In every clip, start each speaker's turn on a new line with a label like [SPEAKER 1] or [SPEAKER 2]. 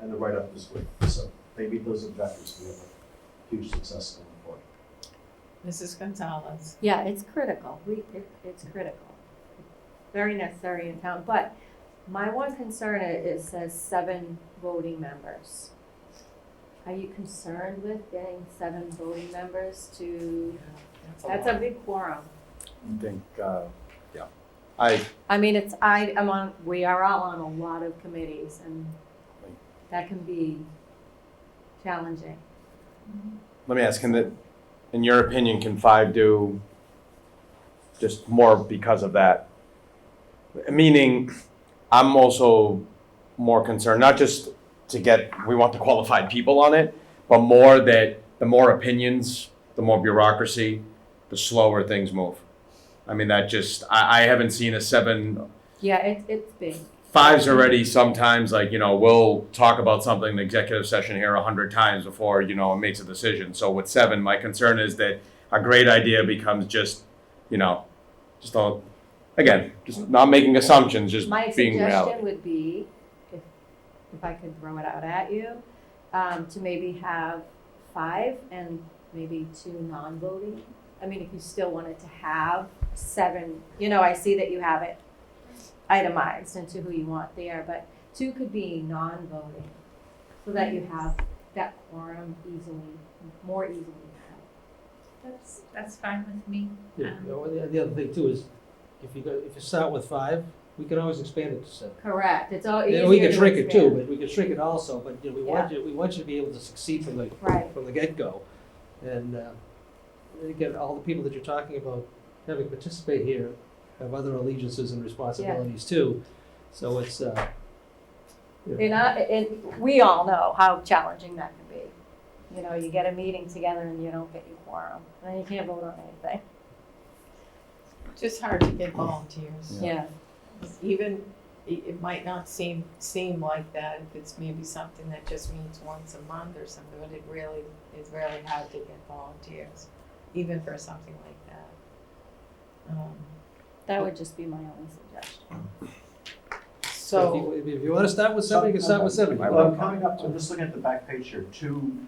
[SPEAKER 1] and the write-up was great. So they meet those objectives, we have a huge success going forward.
[SPEAKER 2] Mrs. Gonzalez.
[SPEAKER 3] Yeah, it's critical. We, it, it's critical. Very necessary in town, but my one concern i- is, it says seven voting members. Are you concerned with getting seven voting members to, that's a big quorum.
[SPEAKER 4] I think, uh, yeah, I,
[SPEAKER 3] I mean, it's, I, I'm on, we are all on a lot of committees and that can be challenging.
[SPEAKER 4] let me ask, can the, in your opinion, can five do just more because of that? Meaning, I'm also more concerned, not just to get, we want the qualified people on it, but more that the more opinions, the more bureaucracy, the slower things move. I mean, that just, I, I haven't seen a seven
[SPEAKER 3] Yeah, it, it's big.
[SPEAKER 4] five's already sometimes like you know we'll talk about something in executive session here a hundred times before you know it makes a decision so with seven my concern is that a great idea becomes just you know just all again just not making assumptions just
[SPEAKER 3] My
[SPEAKER 4] being
[SPEAKER 3] suggestion
[SPEAKER 4] reality
[SPEAKER 3] would be, if, if I could throw it out at you, um, to maybe have five and maybe two non-voting. I mean, if you still wanted to have seven, you know, I see that you have it itemized into who you want there, but two could be non-voting. So that you have that quorum easily, more easily.
[SPEAKER 5] That's, that's fine with me.
[SPEAKER 6] Yeah,
[SPEAKER 5] Um,
[SPEAKER 6] you know, the, the other thing too is, if you go, if you start with five, we can always expand it to seven.
[SPEAKER 3] Correct, it's all easier
[SPEAKER 6] And
[SPEAKER 3] to
[SPEAKER 6] we can shrink it too,
[SPEAKER 3] expand.
[SPEAKER 6] but we can shrink it also, but you know, we want you, we want you to be able to succeed from the,
[SPEAKER 3] Right.
[SPEAKER 6] from the get-go. And, uh, and again, all the people that you're talking about having participate here have other allegiances and responsibilities too. So it's, uh, you know,
[SPEAKER 3] You know, and we all know how challenging that can be. You know, you get a meeting together and you don't get your quorum, and then you can't vote on anything.
[SPEAKER 2] Just hard to get volunteers.
[SPEAKER 3] Yeah.
[SPEAKER 2] Even, it, it might not seem, seem like that if it's maybe something that just meets once a month or something, but it really, it's really hard to get volunteers, even for something like that. Um,
[SPEAKER 3] That would just be my only suggestion.
[SPEAKER 6] if
[SPEAKER 2] So,
[SPEAKER 6] you, if you wanna start with seven, you can start with seven.
[SPEAKER 1] Well, I'm coming up to, I'm just looking at the back page here, two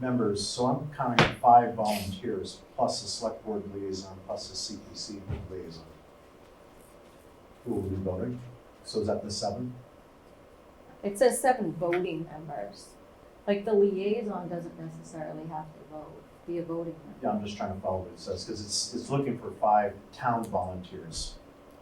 [SPEAKER 1] members, so I'm counting five volunteers, plus a select board liaison, plus a CPC liaison. Who will be voting? So is that the seven?
[SPEAKER 3] It says seven voting members. Like the liaison doesn't necessarily have to vote, be a voting member.
[SPEAKER 1] Yeah, I'm just trying to follow what it says, because it's, it's looking for five town volunteers.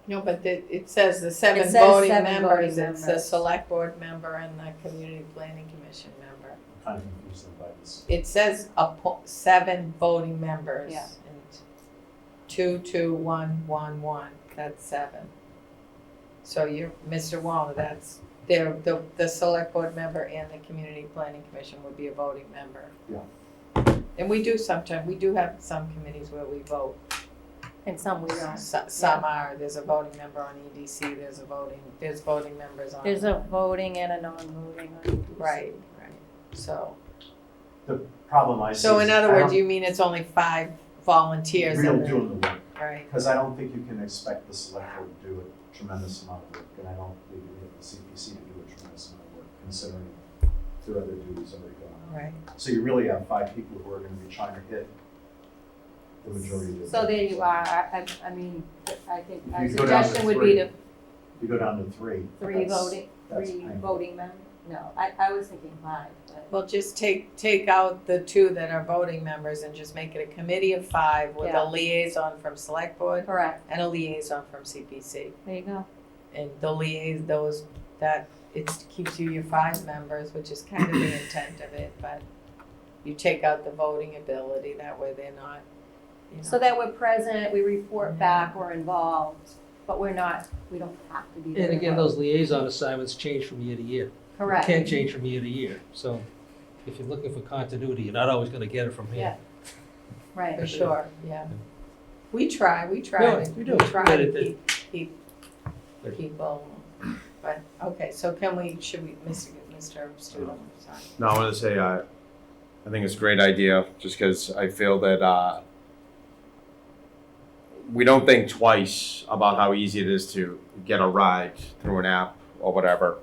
[SPEAKER 2] no, but it, it says the seven
[SPEAKER 3] says
[SPEAKER 2] voting
[SPEAKER 3] seven
[SPEAKER 2] members,
[SPEAKER 3] voting
[SPEAKER 2] it's the
[SPEAKER 3] members.
[SPEAKER 2] select board member and the community planning commission member.
[SPEAKER 1] I'm kind of confused by this.
[SPEAKER 2] It says appo- seven voting members.
[SPEAKER 3] Yeah.
[SPEAKER 2] and Two, two, one, one, one, that's seven. So you're, Mr. Walner, that's, there, the, the select board member and the community planning commission would be a voting member.
[SPEAKER 1] Yeah.
[SPEAKER 2] And we do sometimes, we do have some committees where we vote,
[SPEAKER 3] And some we don't.
[SPEAKER 2] So- some are, there's a voting member on EDC, there's a voting, there's voting members on.
[SPEAKER 3] There's a voting and a non-voting. on EDC.
[SPEAKER 2] Right, right, so,
[SPEAKER 1] Problem I see.
[SPEAKER 2] so
[SPEAKER 1] is
[SPEAKER 2] in other
[SPEAKER 1] I
[SPEAKER 2] words,
[SPEAKER 1] don't-
[SPEAKER 2] you mean it's only five volunteers
[SPEAKER 1] Real
[SPEAKER 2] and then,
[SPEAKER 1] doing the work.
[SPEAKER 2] right?
[SPEAKER 1] Because I don't think you can expect the select board to do a tremendous amount of work, and I don't think you need the CPC to do a tremendous amount of work, considering their other duties already going
[SPEAKER 2] Right.
[SPEAKER 1] on. So you really have five people who are gonna be trying to hit the majority of the.
[SPEAKER 3] So there you are. I, I- I mean, I think our
[SPEAKER 1] You go down to
[SPEAKER 3] suggestion would be
[SPEAKER 1] three.
[SPEAKER 3] to
[SPEAKER 1] You go down to three.
[SPEAKER 3] three
[SPEAKER 1] that's-
[SPEAKER 3] voting,
[SPEAKER 1] that's
[SPEAKER 3] three
[SPEAKER 1] painful.
[SPEAKER 3] voting members. No, I, I was thinking five, but.
[SPEAKER 2] Well, just take, take out the two that are voting members and just make it a committee of five with
[SPEAKER 3] Yeah.
[SPEAKER 2] a liaison from select board
[SPEAKER 3] Correct.
[SPEAKER 2] and a liaison from CPC.
[SPEAKER 3] There you go.
[SPEAKER 2] And the liaison, those, that, it keeps you your five members, which is kind of the intent of it, but you take out the voting ability, that way they're not, you know.
[SPEAKER 3] So that we're present, we report back, we're involved, but we're not, we don't have to be there.
[SPEAKER 6] And again, those liaison assignments change from year to year. It
[SPEAKER 3] Correct.
[SPEAKER 6] Can change from year to year, so if you're looking for continuity, you're not always gonna get it from here.
[SPEAKER 3] Right.
[SPEAKER 2] For sure, yeah. We try, we
[SPEAKER 6] Yeah,
[SPEAKER 2] try, to-
[SPEAKER 6] we
[SPEAKER 2] we
[SPEAKER 6] do.
[SPEAKER 2] try
[SPEAKER 6] But
[SPEAKER 2] to
[SPEAKER 6] it- it-
[SPEAKER 2] keep, keep
[SPEAKER 6] But-
[SPEAKER 2] people, but, okay, so can we, should we, Mr. Mr. Student, sorry.
[SPEAKER 4] no i want to say i i think it's a great idea just because i feel that uh we don't think twice about how easy it is to get a ride through an app or whatever